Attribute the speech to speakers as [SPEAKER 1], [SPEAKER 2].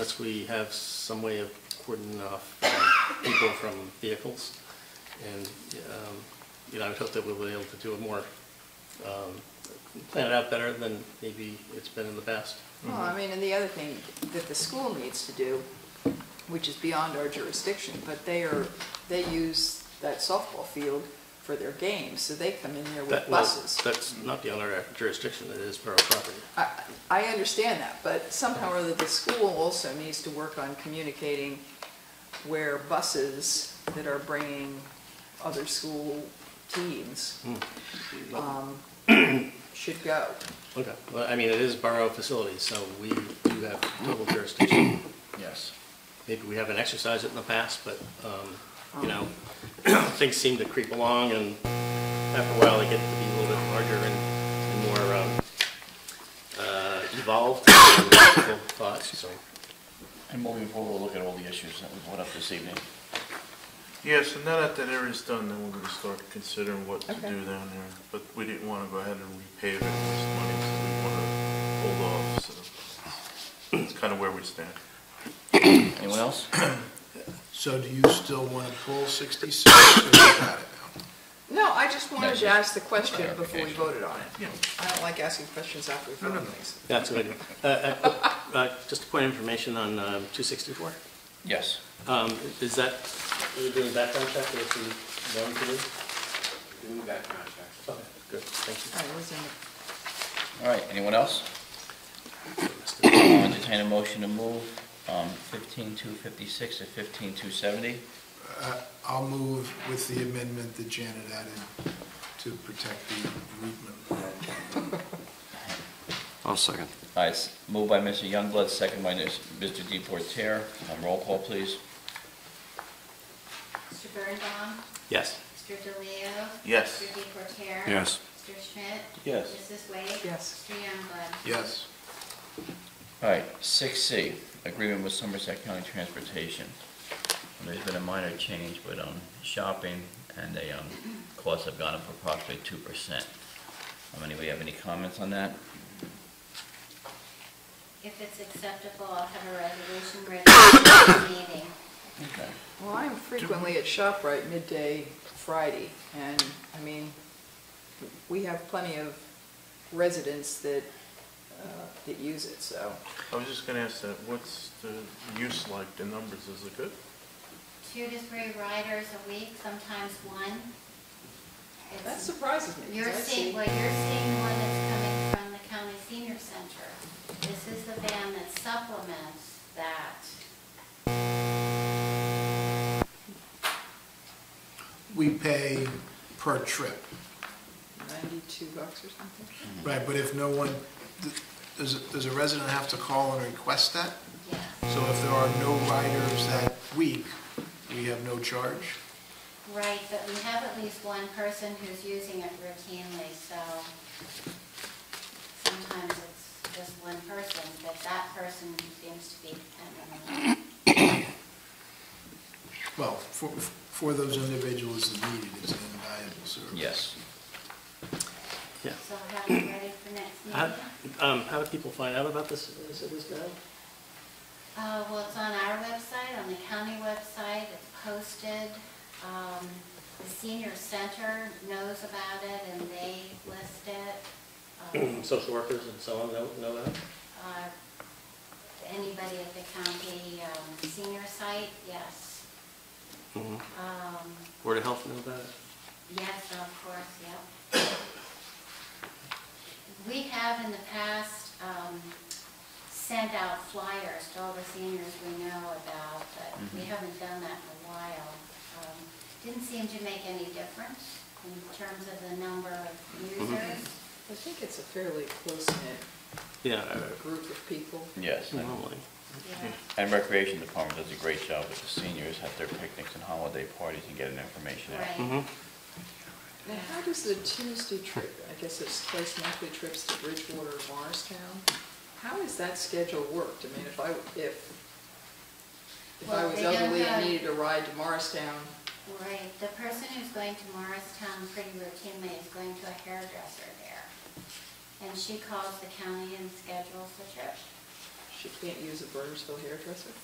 [SPEAKER 1] Unless we have some way of cordoning off um, people from vehicles. And, um, you know, I would hope that we'll be able to do it more, um, plan it out better than maybe it's been in the past.
[SPEAKER 2] Well, I mean, and the other thing that the school needs to do, which is beyond our jurisdiction, but they are, they use that softball field for their games, so they come in there with
[SPEAKER 1] That- well,
[SPEAKER 2] buses.
[SPEAKER 1] That's not beyond our jurisdiction, it is borough property.
[SPEAKER 2] I, I understand that, but somehow or other, the school also needs to work on communicating where buses that are bringing other school teams
[SPEAKER 1] Hmm.
[SPEAKER 2] um, should go.
[SPEAKER 1] Okay, well, I mean, it is borough facilities, so we do have total jurisdiction.
[SPEAKER 3] Yes.
[SPEAKER 1] Maybe we haven't exercised it in the past, but, um, you know, things seem to creep along and after a while they get to be a little bit larger and and more um, uh, evolved than people thought, so.
[SPEAKER 3] And moving forward, we'll look at all the issues that we brought up this evening.
[SPEAKER 4] Yes, and now that that area's done, then we're gonna start considering what to
[SPEAKER 2] Okay.
[SPEAKER 4] do down there. But we didn't wanna go ahead and repave it with this money, so we wanna hold off, so it's kinda where we stand.
[SPEAKER 3] Anyone else?
[SPEAKER 5] So do you still want to pull 66 or you got it now?
[SPEAKER 2] No, I just wanted to ask the question before we
[SPEAKER 3] Clarification.
[SPEAKER 2] voted on it.
[SPEAKER 4] Yeah.
[SPEAKER 2] I don't like asking questions after we vote on things.
[SPEAKER 1] That's what I do. Uh, uh, uh, Just a point of information on um, 264.
[SPEAKER 3] Yes.
[SPEAKER 1] Um, Is that, are we doing a background check or is it known to do?
[SPEAKER 6] Doing the background check.
[SPEAKER 1] Okay, good, thank
[SPEAKER 2] All right, what's in it?
[SPEAKER 3] All right, anyone else?
[SPEAKER 1] you.
[SPEAKER 3] I'll entertain a motion to move um, 15256 to 15270.
[SPEAKER 5] Uh, I'll move with the amendment that Janet added to protect the bereavement.
[SPEAKER 7] I'll second.
[SPEAKER 3] All right, s- moved by Mr. Youngblood, second by Ms. Mr. Deportaire. Um, Roll call, please.
[SPEAKER 8] Mr. Birnbaum,
[SPEAKER 1] Yes.
[SPEAKER 8] Mr. DeLeo.
[SPEAKER 4] Yes.
[SPEAKER 8] Mr. Deportaire.
[SPEAKER 7] Yes.
[SPEAKER 8] Mr. Schmidt.
[SPEAKER 3] Yes.
[SPEAKER 8] Mrs. Wade.
[SPEAKER 2] Yes.
[SPEAKER 8] Mr. Youngblood.
[SPEAKER 5] Yes.
[SPEAKER 3] All right, 6C, agreement with Somerset County Transportation. And There's been a minor change, but um, shopping and the um, costs have gone up approximately 2%. Um, Anybody have any comments on that?
[SPEAKER 8] If it's acceptable, I'll have a resolution ready for the meeting.
[SPEAKER 3] Okay.
[SPEAKER 2] Well, I'm frequently at ShopRite midday Friday, and, I mean, we have plenty of residents that, uh, that use it, so.
[SPEAKER 4] I was just gonna ask that, what's the use like, the numbers, is it good?
[SPEAKER 8] Two to three riders a week, sometimes one. It's-
[SPEAKER 2] That surprises me. 'cause
[SPEAKER 8] You're
[SPEAKER 2] I
[SPEAKER 8] seeing,
[SPEAKER 2] see-
[SPEAKER 8] well, you're seeing one that's coming from the county senior center. This is the van that supplements that.
[SPEAKER 5] We pay per trip,
[SPEAKER 2] 92 bucks or something?
[SPEAKER 5] right, but if no one, does, does a resident have to call and request that?
[SPEAKER 8] Yes.
[SPEAKER 5] So if there are no riders that week, we have no charge?
[SPEAKER 8] Right, but we have at least one person who's using it routinely, so sometimes it's just one person, but that person seems to be dependent on it.
[SPEAKER 5] Well, for, for those individuals that need it, it's an invaluable service.
[SPEAKER 3] Yes.
[SPEAKER 8] So have it ready for next
[SPEAKER 1] How,
[SPEAKER 8] meeting.
[SPEAKER 1] um, how do people find out about this, is it this now?
[SPEAKER 8] Uh, well, it's on our website, on the county website, it's posted. Um, the senior center knows about it and they list it. Um,
[SPEAKER 1] Social workers and so on know, know that?
[SPEAKER 8] uh, Anybody at the county, um, senior site, yes. Um,
[SPEAKER 1] Board of Health know about it?
[SPEAKER 8] Yes, of course, yep. We have in the past um, sent out flyers to all the seniors we know about, but we haven't done that in a while. Um, Didn't seem to make any difference in terms of the number of users.
[SPEAKER 2] I think it's a fairly close-knit
[SPEAKER 1] Yeah,
[SPEAKER 2] group of people.
[SPEAKER 3] Yes. and-
[SPEAKER 1] normally.
[SPEAKER 8] Yeah.
[SPEAKER 3] And Recreation Department does a great job with the seniors, at their picnics and holiday parties and getting information out.
[SPEAKER 8] Right.
[SPEAKER 2] Now, how does the Tuesday trip, I guess it's twice monthly trips to Bridgewater, and Morristown, how is that schedule worked? I mean, if I, if, if I
[SPEAKER 8] Well,
[SPEAKER 2] was
[SPEAKER 8] they don't
[SPEAKER 2] elderly and
[SPEAKER 8] have-
[SPEAKER 2] needed a ride to Morristown,
[SPEAKER 8] Right, the person who's going to Morristown pretty routinely is going to a hairdresser there. And she calls the county and schedules the trip.
[SPEAKER 2] She can't use a Burgersville hairdresser?